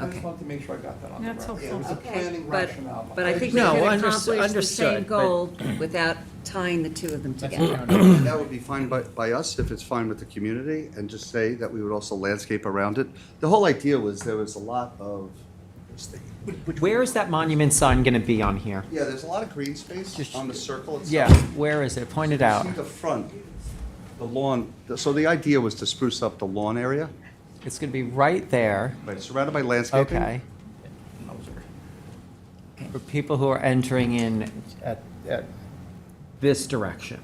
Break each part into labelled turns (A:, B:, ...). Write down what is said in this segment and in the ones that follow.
A: I just
B: Okay.
A: wanted to make sure I got that on the
C: That's
A: record. Yeah, It was a
D: helpful.
A: planning
B: But,
A: rationale.
B: but I think we
E: No,
B: can
E: unders-
B: accomplish the same
E: understood, but-
B: goal without tying the two of them
E: That's
B: together.
E: fine.
F: That would be fine by, by us, if it's fine with the community, and just say that we would also landscape around it. The whole idea was there was a lot of,
E: Where is that monument sign gonna be on here?
F: yeah, there's a lot of green space
E: Just-
F: on the circle itself.
E: Yeah, where is it? Point it out.
F: See the front, the lawn, so the idea was to spruce up the lawn area,
E: It's gonna be right there,
F: right, surrounded by landscaping.
E: okay? For people who are entering in at, at this direction,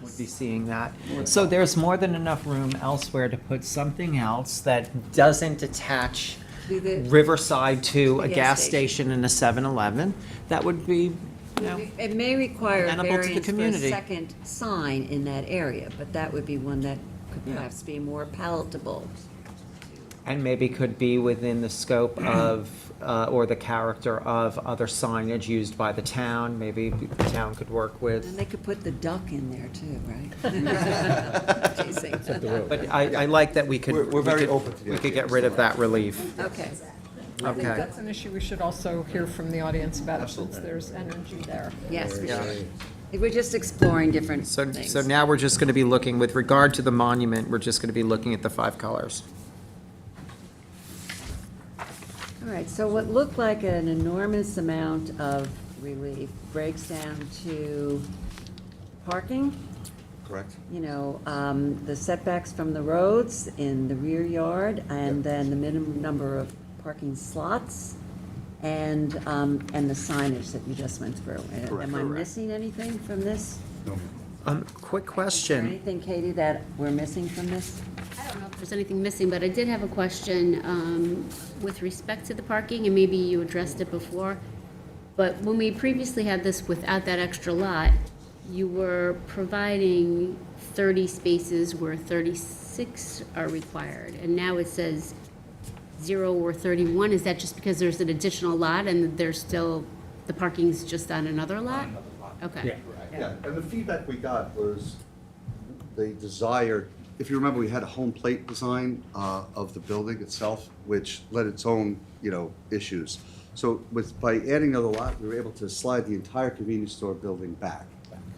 E: would be seeing that. So there's more than enough room elsewhere to put something else that doesn't attach
B: Do the-
E: Riverside to
B: The
E: a
B: gas
E: gas
B: station.
E: station and a 7-Eleven. That would be, you know.
B: It may require a
E: Amenable to the
B: variance for a
E: community.
B: second sign in that area, but that would be one that could
E: Yeah.
B: perhaps be more palatable.
E: And maybe could be within the scope of, uh, or the character of other signage used by the town, maybe the town could work
B: And
E: with.
B: they could put the duck in there too, right? Teasing.
E: But I, I like that we could.
F: We're- we're
E: we
F: very
E: could-
F: open to the
E: We could
F: idea.
E: get rid of that relief,
B: Okay,
C: I think
E: okay.
C: that's an issue we should also hear from the audience about, since there's energy there.
B: yes, we should. We're just exploring different
E: So,
B: things.
E: so now we're just gonna be looking, with regard to the monument, we're just gonna be looking at the five colors.
B: All right, so what looked like an enormous amount of relief breaks down to parking,
F: Correct?
B: you know, um, the setbacks from the roads in the rear yard, and then the minimum number of parking slots, and, um, and the signage that you just went through.
F: Correct.
B: Am I
F: Correct.
B: missing anything from this?
F: No.
E: Um, quick
B: Is there
E: question,
B: anything, Katie, that we're missing from this?
G: I don't know if there's anything missing, but I did have a question um, with respect to the parking, and maybe you addressed it before. But when we previously had this without that extra lot, you were providing 30 spaces where 36 are required. And now it says zero or 31. Is that just because there's an additional lot and there's still, the parking's just on another lot? Okay.
F: Yeah, and the feedback we got was the desire, if you remember, we had a home plate design uh, of the building itself, which led its own, you know, issues. So with, by adding another lot, we were able to slide the entire convenience store building back,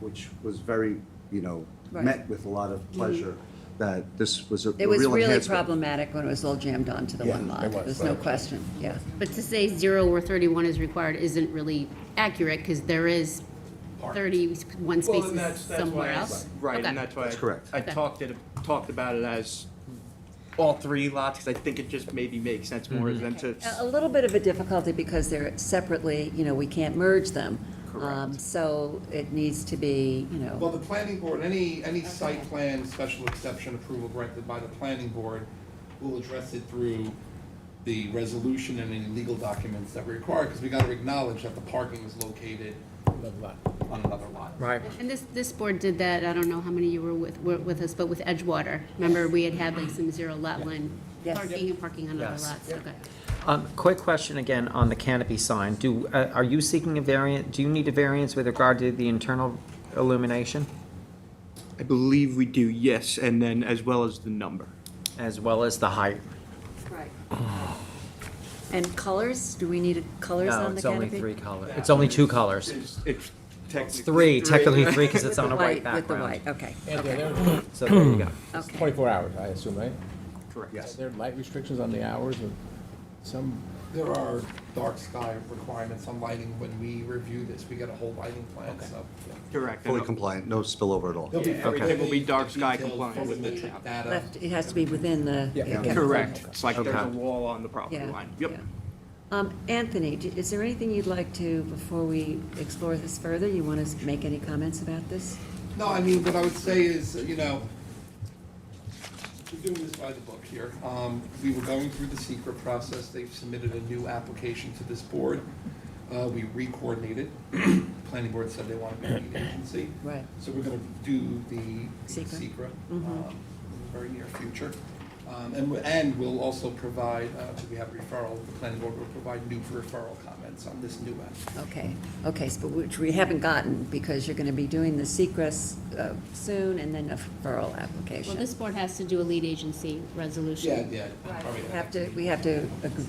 F: which was very, you know,
B: Right. Mm-hmm.
F: met with a lot of pleasure, that this was a a
B: It
F: real
B: was really
F: enhancement.
B: problematic when it was all jammed onto the one lot. There's no question, yeah.
G: But to say zero or thirty-one is required isn't really accurate, because there is thirty-one
H: Well, and
G: spaces
H: that's- that's why
G: somewhere
H: I-
G: else.
H: Right,
G: Okay.
H: and that's why. I-
F: correct.
H: I
G: Okay.
H: talked it, talked about it as all three lots, because I think it just maybe makes sense more
E: Mm-hmm.
H: than to.
B: A- A little bit of a difficulty because they're separately, you know, we can't merge them. Um, So it needs to be, you
A: Well,
B: know,
A: the planning board, any, any site plan special exception approval granted by the planning board will address it through the resolution and any legal documents that we require, because we gotta acknowledge that the parking is located on another lot.
E: right?
G: And this, this board did that, I don't know how many you were with, were with us, but with Edgewater, remember, we had had like some zero lot line
B: Yes.
G: parking and parking on other
E: Yes.
G: lots, okay.
E: Um, quick question again on the canopy sign, do, uh, are you seeking a variant, do you need a variance with regard to the internal illumination?
H: I believe we do, yes, and then as well as the number.
E: As well as the height?
B: and colors, do we need colors
E: No,
B: on the
E: it's only
B: canopy?
E: three colors, it's only two colors.
H: It's it's
E: It's
H: technically.
E: three, technically three, because it's on a white
B: With the
E: background.
B: white, okay,
I: Anthony,
B: okay,
I: there-
E: So there you go.
I: it's
B: Okay.
I: 24 hours, I assume, right?
H: Correct.
I: Are there light restrictions on the hours of some,
A: There are dark sky requirements on lighting. When we review this, we get a whole lighting plan, so.
H: Correct.
F: Fully compliant, no spillover at all.
A: There'll be
H: Everything will be dark sky
A: detailed
H: compliant with the
A: photometric
H: town.
A: data.
B: left, it has to be within the.
I: Yeah.
B: okay.
H: Correct, it's like there's a
E: Okay.
H: wall on the property
B: Yeah,
H: line, yep.
B: yeah. Um, Anthony, d- is there anything you'd like to, before we explore this further, you want to make any comments about this?
A: No, I mean, what I would say is, you know, we're doing this by the book here. Um, we were going through the secret process, they've submitted a new application to this board. Uh, we re-coordinated, planning board said they want to be lead agency.
B: Right.
A: So we're gonna do the
B: SECRA.
A: secret um, in the very near future. Um, and, we- and we'll also provide, uh, we have referral, the planning board will provide new referral comments on this new app.
B: Okay, okay, so- but which we haven't gotten, because you're gonna be doing the Secrest, uh soon, and then a referral application.
G: Well, this board has to do a lead agency resolution.
A: Yeah, yeah. probably-
B: We Have to, we have to